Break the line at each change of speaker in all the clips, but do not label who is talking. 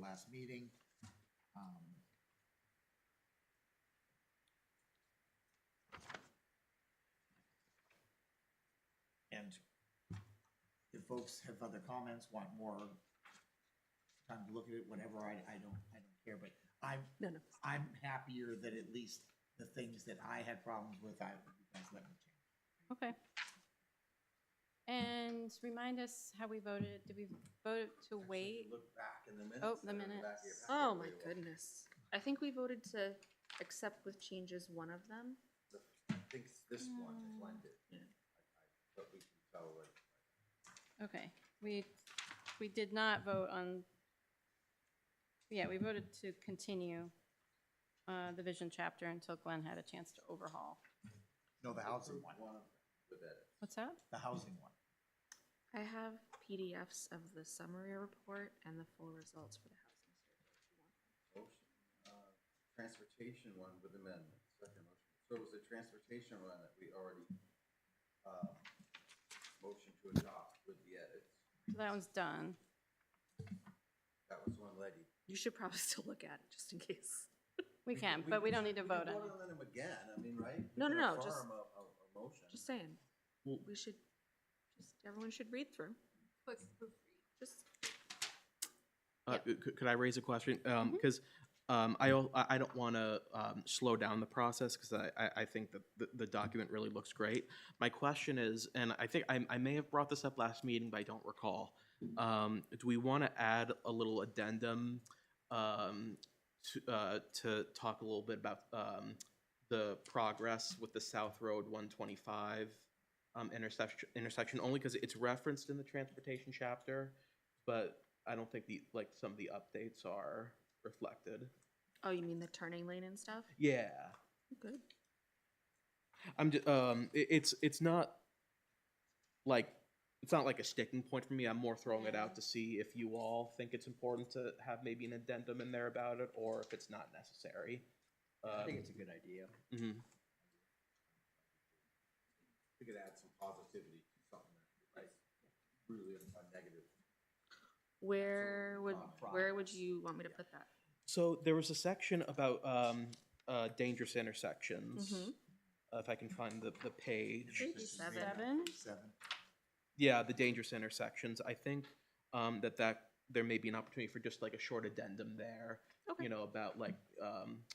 last meeting. Um, And if folks have other comments, want more time to look at it, whatever, I, I don't, I don't care, but I'm,
No, no.
I'm happier that at least the things that I had problems with, I, you guys let me change.
Okay. And remind us how we voted. Did we vote to wait?
Look back in the minutes.
Oh, the
they're in back of your
minutes.
packet
Oh,
where
my
you are.
goodness. I think we voted to accept with changes one of them.
I think this one is
No.
blended. I- I- But we can tell what.
Okay, we, we did not vote on, yeah, we voted to continue uh, the vision chapter until Glenn had a chance to overhaul.
No, the housing one,
With edits.
What's that?
the housing one.
I have PDFs of the summary report and the full results for the housing survey.
Motion, uh, transportation one with amendment, second motion. So it was the transportation one that we already, uh, motion to adopt with the edits.
That one's done.
That was one lady.
You should probably still look at it, just in case.
We can, but we don't need to vote on it.
We can vote on them again, I mean, right? We
No, no,
can
no, just-
affirm a- a- a motion.
Just saying,
Well-
we should, just, everyone should read through. Just,
Uh,
Yep.
c- c- Could I raise a question? Because I al- I I don't want to slow down the process because I- I I think that the- the document really looks great. My question is, and I think I I may have brought this up last meeting, but I don't recall. um, Do we want to add a little addendum um, to uh, to talk a little bit about um, the progress with the South Road 125 um, intersection, intersection only because it's referenced in the transportation chapter, but I don't think the, like, some of the updates are reflected.
oh, you mean the turning lane and stuff?
Yeah,
Good.
I'm, ju- um, i it's, it's not, like, it's not like a sticking point for me, I'm more throwing it out to see if you all think it's important to have maybe an addendum in there about it, or if it's not necessary.
I think
Um,
it's a good idea.
mhm.
We could add some positivity to something that, like, really a negative.
Where would,
Uh,
where would you want me to put that?
So there was a section about, um, uh, dangerous intersections.
Mm-hmm.
Mhm.
Uh, If I can find the, the page.
Maybe
This is
seven.
maybe
Seven?
Seven.
Yeah, the dangerous intersections. I think um, that that there may be an opportunity for just like a short addendum there,
Okay.
you know, about like um,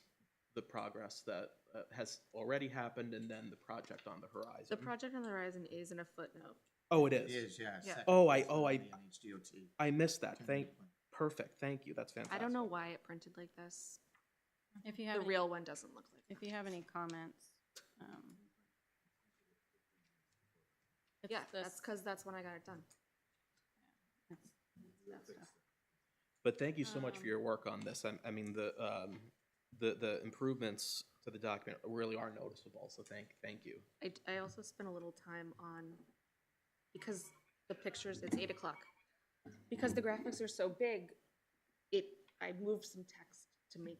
the progress that uh, has already happened and then the project on the horizon.
The project on the horizon is in a footnote.
oh, it
It
is.
is, yeah. Mm-hmm.
Yeah.
second
Oh, I-
is
oh, I-
definitely an HDOT.
I missed that. Thank.
Ten-minute plan.
Perfect. Thank you. That's fantastic.
I don't know why it printed like this.
If you
The
have, any-
real one doesn't look like
if you have any comments. um, it's
Yeah,
the-
that's because that's when I got it done.
it's that stuff.
But thank you so much for
Um,
your work on this. I, I mean, the um, the the improvements to the document really are noticeable. So thank thank you.
I, d- I also spent a little time on, because the pictures, it's eight o'clock. Because the graphics are so big, it, I moved some text to make,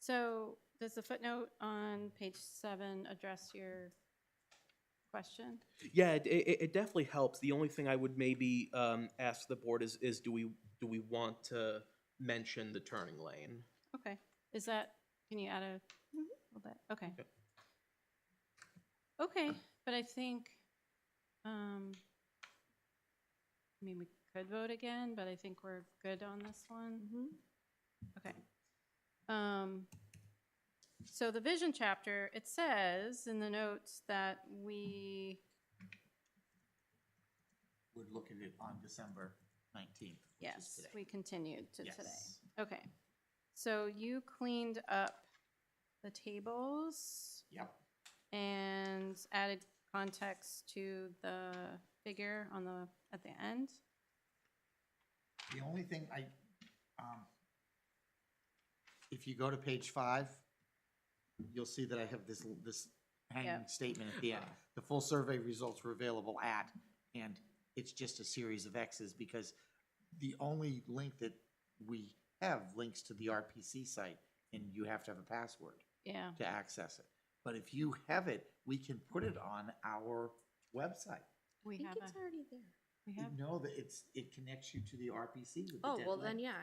So does the footnote on page seven address your question?
Yeah, it, it, it definitely helps. The only thing I would maybe um, ask the board is, is do we, do we want to mention the turning lane?
Okay, is that, can you add a little bit, okay.
Yep.
Okay, but I think, um, I mean, we could vote again, but I think we're good on this one. Okay. Um, so the vision chapter, it says in the notes that we,
Would look at it on December nineteenth, which is
yes,
today.
we continued to today.
Yes.
Okay, so you cleaned up the tables
Yep,
and added context to the figure on the, at the end.
the only thing I, um, if you go to page five, you'll see that I have this, this hanging statement at the end. The full survey results were available at, and it's just a series of X's because the only link that we have links to the RPC site, and you have to have a password.
Yeah,
to access it. But if you have it, we can put it on our website.
we have a,
already there.
we
You
have
know that it's, it connects you to the RPC with the
Oh, well
deadline.
then, yeah,